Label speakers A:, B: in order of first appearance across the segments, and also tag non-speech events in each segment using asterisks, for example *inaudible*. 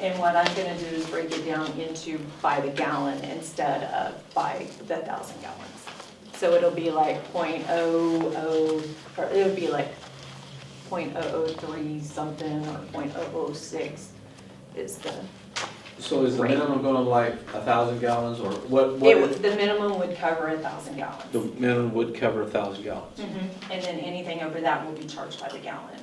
A: And what I'm gonna do is break it down into by the gallon instead of by the thousand gallons. So it'll be like point oh oh, or it'll be like point oh oh three something or point oh oh six is the,
B: So is the
A: Right.
B: minimum going to like a thousand gallons or what, what
A: it, would-
B: is?
A: the minimum would cover a thousand
B: The
A: gallons.
B: minimum would cover a thousand gallons.
A: Mhm. And then anything over that will be charged by the gallon.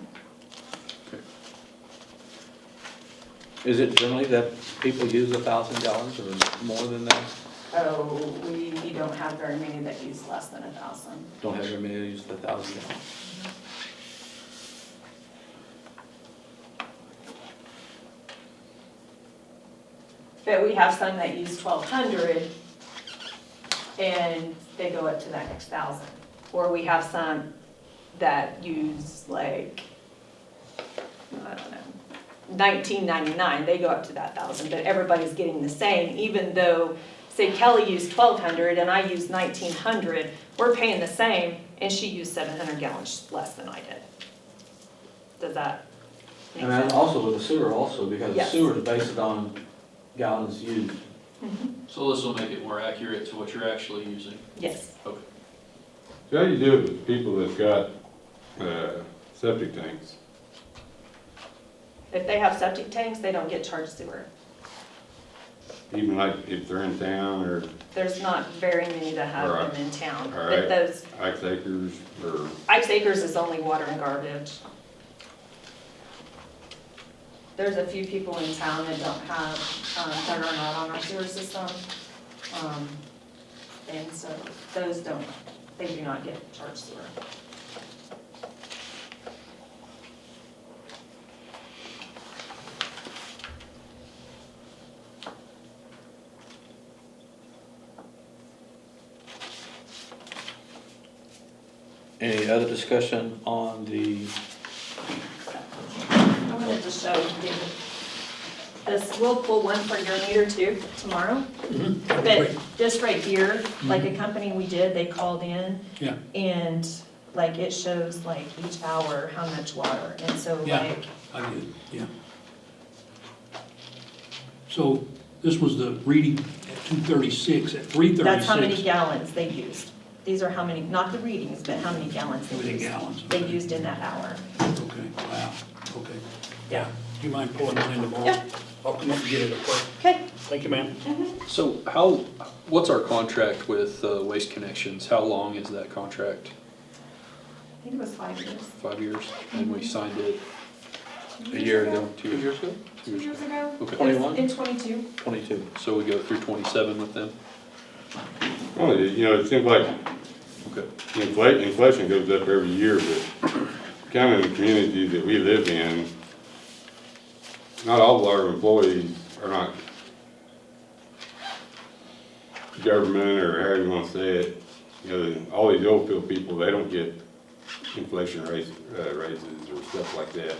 B: Is it generally that people use a thousand gallons or more than that?
A: Oh, we, we don't have very many that use less than a thousand.
B: Don't have very many that use the thousand gallons.
A: But we have some that use twelve hundred and they go up to that next thousand. Or we have some that use like, I don't know, nineteen ninety-nine, they go up to that thousand, but everybody's getting the same, even though, say Kelly used twelve hundred and I used nineteen hundred, we're paying the same and she used seven hundred gallons less than I did. Does that make
B: And then
A: sense?
B: also with the sewer also, because the
A: Yes.
B: sewer is based on gallons used.
C: So this will make it more accurate to what you're actually using.
A: Yes.
D: So How do you do it with people that's got, uh, septic tanks?
A: If they have septic tanks, they don't get charged sewer.
D: Even like if they're in town or
A: There's not very many that have
D: Right.
A: them in town. But
D: All right.
A: those,
D: Ike's Acres or,
A: Ice Acres is only water and garbage. There's a few people in town that don't have, um, that are not on our sewer system. Um, And so those don't, they do not get charged sewer.
B: Any other discussion on the,
A: I'm gonna just show you this, we'll pull one for your meter too tomorrow. But this right here, like a company we did, they called in.
E: Yeah.
A: And like it shows like each hour how much water, and so
E: Yeah.
A: like,
E: I did, yeah. So this was the reading at two thirty-six, at three
A: that's how many
E: thirty-six,
A: gallons they used. These are how many, not the readings, but how many gallons
E: How
A: they
E: many
A: used.
E: gallons,
A: They
E: okay.
A: used in that hour.
E: okay, wow, okay. Yeah, do you mind pulling that in tomorrow?
A: Yeah.
E: I'll come up and get it, okay?
A: Okay,
E: Thank you, ma'am.
C: So how, what's our contract with uh, Waste Connections? How long is that contract?
A: I think it was five years,
C: Five years? And we signed it
A: two
C: a
A: years
C: year
A: ago.
C: ago, Mm-hmm. two years ago?
A: Two years ago.
C: Okay.
B: Twenty-one?
A: In twenty-two.
B: twenty-two?
C: So we go through twenty-seven with them?
D: well, you know, it seems like
C: Okay.
D: inflation, inflation goes up every year, but kind of in the community that we live in, not all of our employees are not government or however you want to say it. You know, all these oil field people, they don't get inflation raise, uh, raises or stuff like that.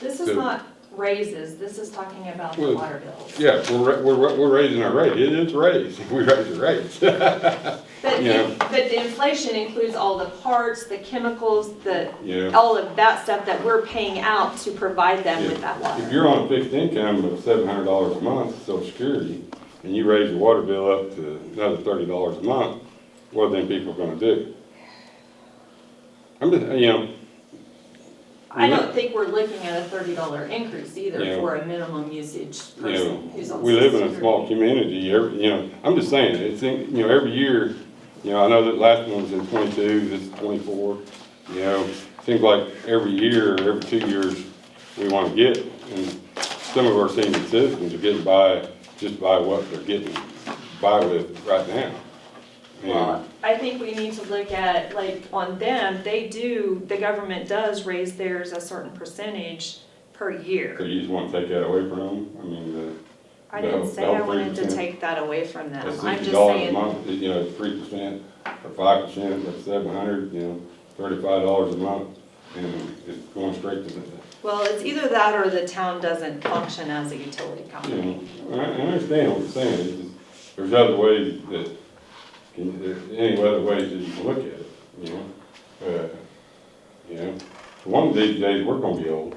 A: This is
D: Good.
A: not raises, this is talking about the
D: Well,
A: water bills.
D: Yeah, we're, ra- we're, ra- we're raising our rate, it is raised, *laughs* we raise the rates. *laughs*
A: But,
D: Yeah.
A: the- but the inflation includes all the parts, the chemicals, the,
D: Yeah,
A: all of that stuff that we're paying out to provide them with that
D: if
A: water.
D: you're on fixed income of seven hundred dollars a month, social security, and you raise your water bill up to another thirty dollars a month, what are them people gonna do? I'm just, you know,
A: I don't think we're looking at a thirty dollar increase either
D: Yeah.
A: for a minimum usage
D: you
A: person who's
D: know,
A: on.
D: we live in a
A: Social
D: small
A: Security.
D: community, every, you know, I'm just saying, it's, in- you know, every year, you know, I know that last one was in twenty-two, this is twenty-four, you know, seems like every year, every two years, we wanna get, and some of our senior citizens are getting by, just by what they're getting by with right now.
A: Well,
D: And,
A: I think we need to look at, like, on them, they do, the government does raise theirs a certain percentage per
D: so
A: year.
D: you just wanna take that away from them, I mean, the.
A: I
D: the-
A: didn't
D: the
A: say
D: whole
A: I wanted to
D: 3%.
A: take that away from them.
D: That's
A: I'm
D: sixty
A: just
D: dollars a
A: saying,
D: month, you know, three percent or five percent, that's seven hundred, you know, thirty-five dollars a month. And it's going straight to the,
A: well, it's either that or the town doesn't function as a utility
D: you
A: company.
D: know, I, I understand what you're saying, it's just, there's other ways that, can, there's any other ways that you can look at it, you know? Uh, You know, one of these days, we're gonna be old.